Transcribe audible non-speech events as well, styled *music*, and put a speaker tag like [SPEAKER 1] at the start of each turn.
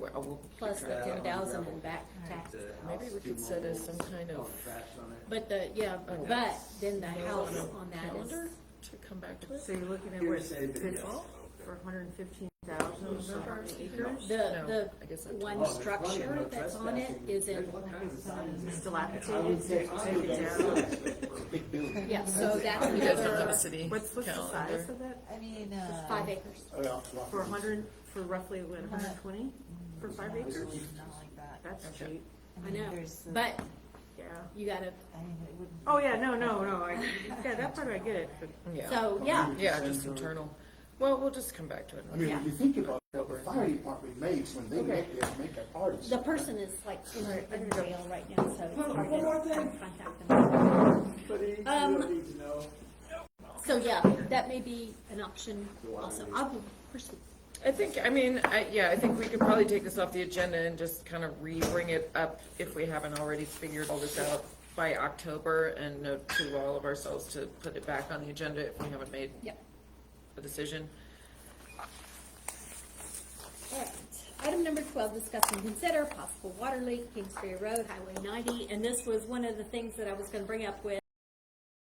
[SPEAKER 1] couple.
[SPEAKER 2] plus the
[SPEAKER 1] Uh,
[SPEAKER 2] ten thousand
[SPEAKER 1] gravel.
[SPEAKER 2] and back
[SPEAKER 1] The
[SPEAKER 2] taxes.
[SPEAKER 1] house,
[SPEAKER 3] Maybe we
[SPEAKER 1] two
[SPEAKER 3] could set us
[SPEAKER 1] mobiles,
[SPEAKER 3] some kind of-
[SPEAKER 1] all the Trash on it.
[SPEAKER 2] But the, yeah, but then the house on that
[SPEAKER 3] Calendar
[SPEAKER 2] is,
[SPEAKER 3] to come back to us?
[SPEAKER 4] So you're looking at where it's
[SPEAKER 1] Here's a bit,
[SPEAKER 4] pitfall for hundred and fifteen thousand acres?
[SPEAKER 3] No,
[SPEAKER 2] the,
[SPEAKER 3] I guess that's-
[SPEAKER 2] the one
[SPEAKER 1] Oh, there's plenty of
[SPEAKER 2] structure
[SPEAKER 1] no
[SPEAKER 2] that's on it
[SPEAKER 1] trespassing.
[SPEAKER 2] is in,
[SPEAKER 1] There's all
[SPEAKER 2] *laughs*
[SPEAKER 1] kinds of signs.
[SPEAKER 4] It's
[SPEAKER 1] I would
[SPEAKER 4] dilapidated,
[SPEAKER 1] say
[SPEAKER 4] so take it down.
[SPEAKER 1] down.
[SPEAKER 2] yeah, so that's
[SPEAKER 3] You guys don't have
[SPEAKER 2] another uh,
[SPEAKER 3] a city
[SPEAKER 4] What's, what's the size
[SPEAKER 3] calendar?
[SPEAKER 4] of that?
[SPEAKER 5] I mean, uh.
[SPEAKER 2] five acres.
[SPEAKER 4] For hundred, for roughly, what, hundred and twenty for five acres?
[SPEAKER 5] Absolutely not like that.
[SPEAKER 4] That's
[SPEAKER 3] Okay.
[SPEAKER 4] cheap,
[SPEAKER 2] I
[SPEAKER 5] mean,
[SPEAKER 2] know,
[SPEAKER 5] there's the-
[SPEAKER 2] but
[SPEAKER 4] yeah.
[SPEAKER 2] you gotta,
[SPEAKER 5] I mean, it wouldn't.
[SPEAKER 4] Oh, yeah, no, no, no, I, yeah, that part I get it, but
[SPEAKER 3] Yeah,
[SPEAKER 2] so, yeah,
[SPEAKER 3] yeah, just internal. Well, we'll just come back to it.
[SPEAKER 6] I mean,
[SPEAKER 2] Yeah.
[SPEAKER 6] when you think about what the fire department makes when they make their, make their parties.
[SPEAKER 2] the person is like in in jail right now, so it's hard to
[SPEAKER 1] one more thing.
[SPEAKER 2] try to contact them.
[SPEAKER 1] But he,
[SPEAKER 2] Um,
[SPEAKER 1] don't need to know.
[SPEAKER 2] So, yeah, that may be an option also. I will pursue.
[SPEAKER 3] I think, I mean, I, yeah, I think we could probably take this off the agenda and just kind of re-bring it up if we haven't already figured all this out by October and note to all of ourselves to put it back on the agenda if we haven't made
[SPEAKER 2] Yep.
[SPEAKER 3] a decision.
[SPEAKER 2] All right. Item number twelve, discuss and consider possible water leak, Kingsbury Road, Highway ninety. And this was one of the things that I was gonna bring up with